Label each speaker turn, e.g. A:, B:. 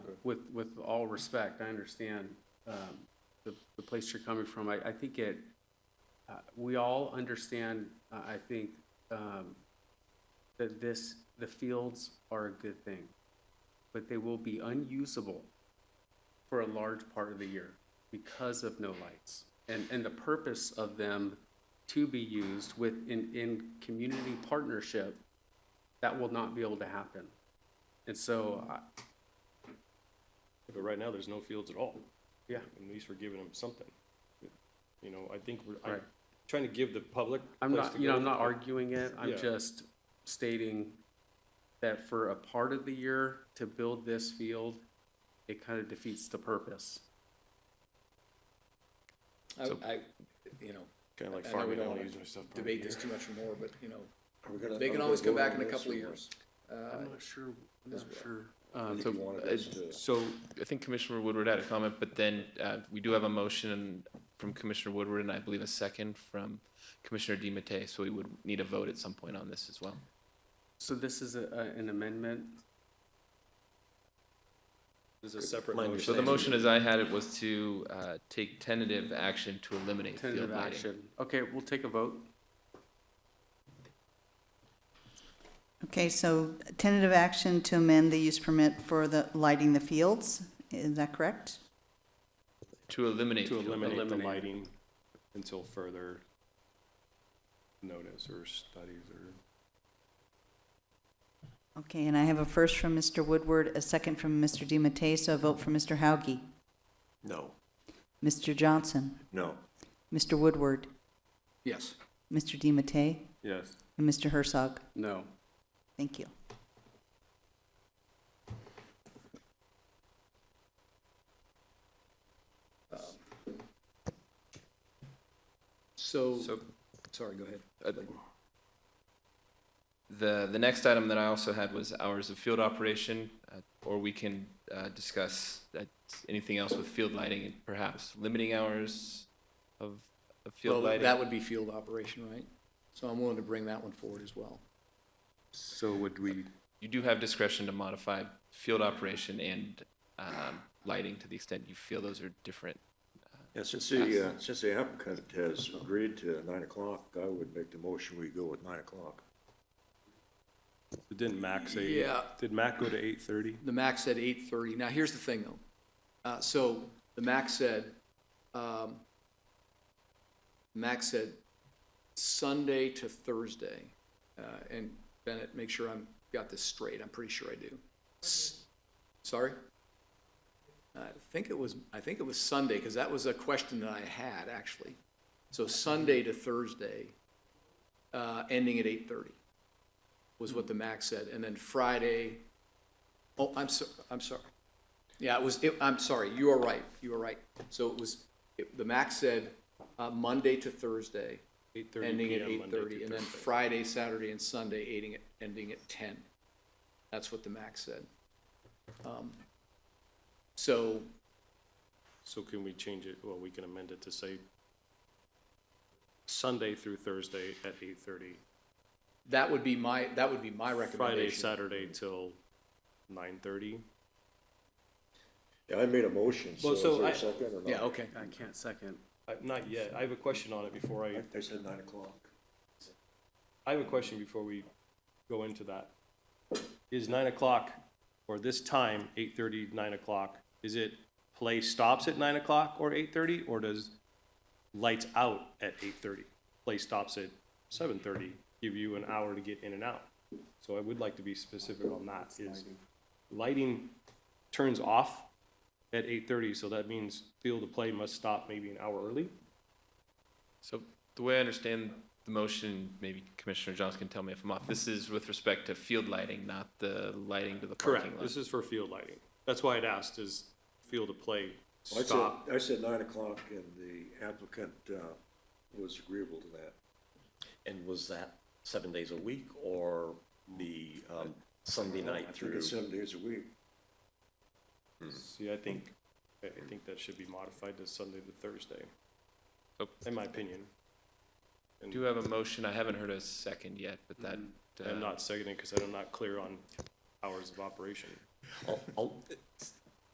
A: with, with all respect, I understand, um, the, the place you're coming from. I, I think it, uh, we all understand, uh, I think, um, that this, the fields are a good thing, but they will be unusable for a large part of the year because of no lights. And, and the purpose of them to be used with, in, in community partnership, that will not be able to happen. And so, uh, I,
B: But right now, there's no fields at all.
A: Yeah.
B: At least we're giving them something. You know, I think we're, I'm
A: Right.
B: trying to give the public.
A: I'm
B: place
A: not,
B: to
A: you know,
B: go.
A: I'm not arguing it,
B: Yeah.
A: I'm just stating that for a part of the year to build this field, it kind of defeats the purpose.
C: I, I, you know,
B: Kinda like
C: I know we
B: farming, I
C: don't
B: wanna
C: wanna
B: use my stuff. part of
C: debate
B: the
C: this
B: year.
C: too much more, but, you know, uh,
D: Are we gonna-
C: they
D: are we
C: can
D: gonna
C: always come
D: vote
C: back
D: on
C: in a
D: this
C: couple of
D: or-
C: years.
A: I'm not sure, I'm not sure. Um,
D: If you wanted
E: Uh,
D: us to-
E: So I think Commissioner Woodward had a comment, but then uh, we do have a motion from Commissioner Woodward and I believe a second from Commissioner DiMattei, so we would need a vote at some point on this as well.
A: So this is a, a- an amendment,
B: This is a separate
D: My
B: motion.
E: So the motion as I had it was to uh, take tentative action to eliminate field
A: tentative
E: lighting.
A: action. Okay, we'll take a vote.
F: Okay, so tentative action to amend the use permit for the lighting the fields, is that correct?
E: To eliminate.
B: To
E: field lighting.
B: eliminate the
A: Eliminate.
B: lighting until further notice or studies or.
F: Okay, and I have a first from Mr. Woodward, a second from Mr. DiMattei, so a vote for Mr. Hauge.
D: No,
F: Mr. Johnson,
D: no.
F: Mr. Woodward,
C: Yes.
F: Mr. DiMattei,
B: Yes.
F: and Mr. Herzog.
A: No.
F: Thank you.
C: So,
E: So
C: sorry, go ahead.
E: Uh, The, the next item that I also had was hours of field operation, uh, or we can uh, discuss that- anything else with field lighting, and perhaps limiting hours of, of field
C: Well,
E: lighting.
C: that would be field operation, right? So I'm willing to bring that one forward as well.
B: So would we?
E: You do have discretion to modify field operation and um, lighting to the extent you feel those are different.
D: Yeah, since the, uh, since the applicant has agreed to nine o'clock, I would make the motion we go with nine o'clock.
B: Didn't Mac say?
C: Yeah.
B: Did Mac go to eight thirty?
C: The max said eight thirty. Now, here's the thing, though. Uh, so the max said, um, max said Sunday to Thursday. Uh, and Bennett, make sure I'm, got this straight. I'm pretty sure I do. S- Sorry? I think it was, I think it was Sunday, because that was a question that I had, actually. So Sunday to Thursday, uh, ending at eight thirty was what the max said. And then Friday, Oh, I'm so, I'm sorry. Yeah, it was, it, I'm sorry, you are right, you are right. So it was, it- the max said, uh, Monday to Thursday,
B: Eight thirty.
C: ending at eight thirty, and then Friday, Saturday, and Sunday, ending at, ending at ten. That's what the max said. Um, So,
B: So can we change it? Well, we can amend it to say Sunday through Thursday at eight thirty.
C: that would be my, that would be my
B: Friday,
C: recommendation.
B: Saturday till nine thirty.
D: Yeah, I made a motion, so
B: Well,
D: is
B: so
D: there
B: I-
D: a second or not?
C: Yeah, okay.
A: I can't second.
B: Not yet. I have a question on it before I,
D: I said nine o'clock.
B: I have a question before we go into that. Is nine o'clock or this time, eight thirty, nine o'clock, is it play stops at nine o'clock or eight thirty? Or does lights out at eight thirty? Play stops at seven thirty, give you an hour to get in and out. So I would like to be specific on that is lighting turns off at eight thirty, so that means field of play must stop maybe an hour early.
E: So the way I understand the motion, maybe Commissioner Johnson can tell me if I'm off, this is with respect to field lighting, not the lighting to the parking
B: Correct,
E: lot.
B: this is for field lighting. That's why I'd asked, is field of play
D: I
B: stop?
D: said, I said nine o'clock and the applicant, uh, was agreeable to that.
G: And was that seven days a week or the um, Sunday
D: I
G: night
D: think
G: through?
D: it's seven days a week.
B: See, I think, I I think that should be modified to Sunday to Thursday,
E: So
B: in my opinion.
E: Do have a motion, I haven't heard a second yet, but that. uh,
B: Mm-hmm. I'm not seconding because I'm not clear on hours of operation.
G: I'll- I'll-